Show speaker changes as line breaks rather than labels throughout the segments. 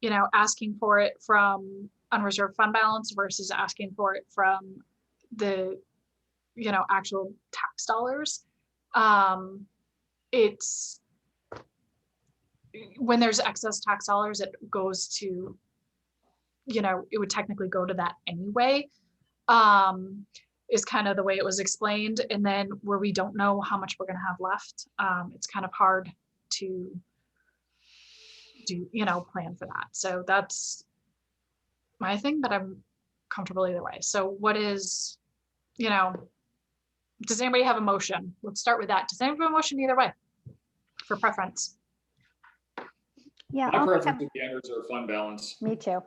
you know, asking for it from unreserved fund balance versus asking for it from the, you know, actual tax dollars. Um, it's when there's excess tax dollars, it goes to, you know, it would technically go to that anyway. Um, is kind of the way it was explained. And then where we don't know how much we're gonna have left, um, it's kind of hard to do, you know, plan for that. So that's my thing, but I'm comfortable either way. So what is, you know, does anybody have a motion? Let's start with that. Does anybody have a motion either way? For preference,
Yeah,
My
I'll pick
preference
up-
would be unreserved fund balance.
me too.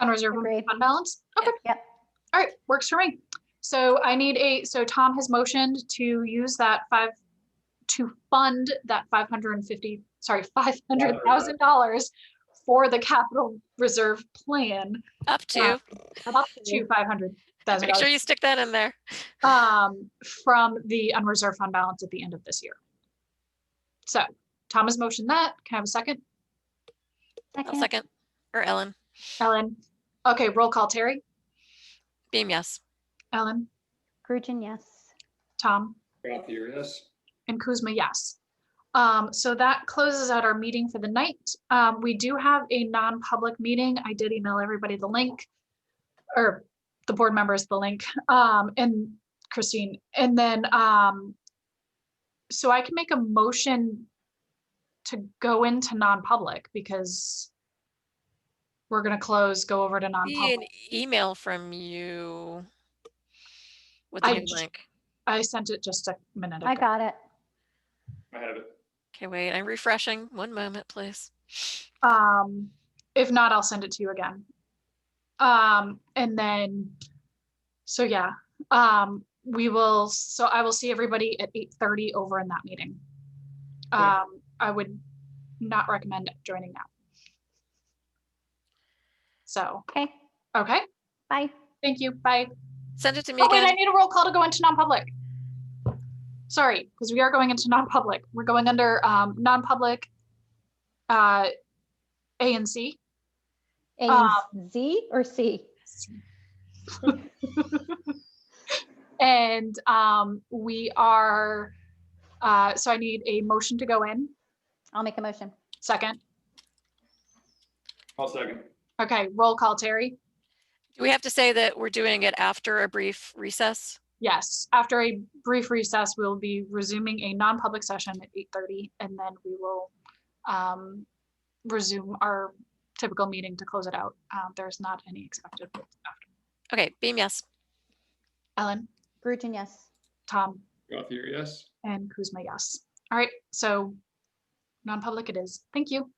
unreserved
Agreed.
fund balance? Okay.
Yep,
All right, works for me. So I need a, so Tom has motioned to use that five, to fund that five hundred and fifty, sorry, five hundred thousand dollars for the capital reserve plan
Up
Yeah.
to,
up to five hundred thousand
make sure
dollars
you stick that in there.
um, from the unreserved fund balance at the end of this year. So Tom has motioned that. Can I have a second?
I'll
second.
second. Or Ellen,
Ellen? Okay, roll call. Terry?
Beam, yes.
Ellen?
Grugin, yes.
Tom?
Gothier, yes.
And Kuzma, yes. Um, so that closes out our meeting for the night. Um, we do have a non-public meeting. I did email everybody the link. Or the board members the link, um, and Christine, and then, um. So I can make a motion to go into non-public because. We're gonna close, go over to
Be an
non-public.
email from you with the
I
new
j-
link.
I sent it just a minute
I
ago.
got it.
I have it.
Okay, wait, I'm refreshing. One moment, please.
Um, if not, I'll send it to you again. Um, and then, so yeah, um, we will, so I will see everybody at eight thirty over in that meeting.
Okay.
Um, I would not recommend joining now. So,
Okay,
okay,
bye.
thank you, bye.
Send it to me
Oh, wait, I
again.
need a roll call to go into non-public. Sorry, because we are going into non-public. We're going under, um, non-public, uh, A and C.
A
Um,
Uh, Z or C?
And um, we are, uh, so I need a motion to go in.
I'll make a motion.
Second.
I'll second.
Okay, roll call, Terry.
Do we have to say that we're doing it after a brief recess?
Yes, after a brief recess, we'll be resuming a non-public session at 8:30 and then we will um, resume our typical meeting to close it out. Um, There's not any expected. after.
Okay, Beam, yes.
Ellen,
Grugin, yes.
Tom,
Gothier, yes.
and Kuzma, yes. All right, so non-public it is. Thank you.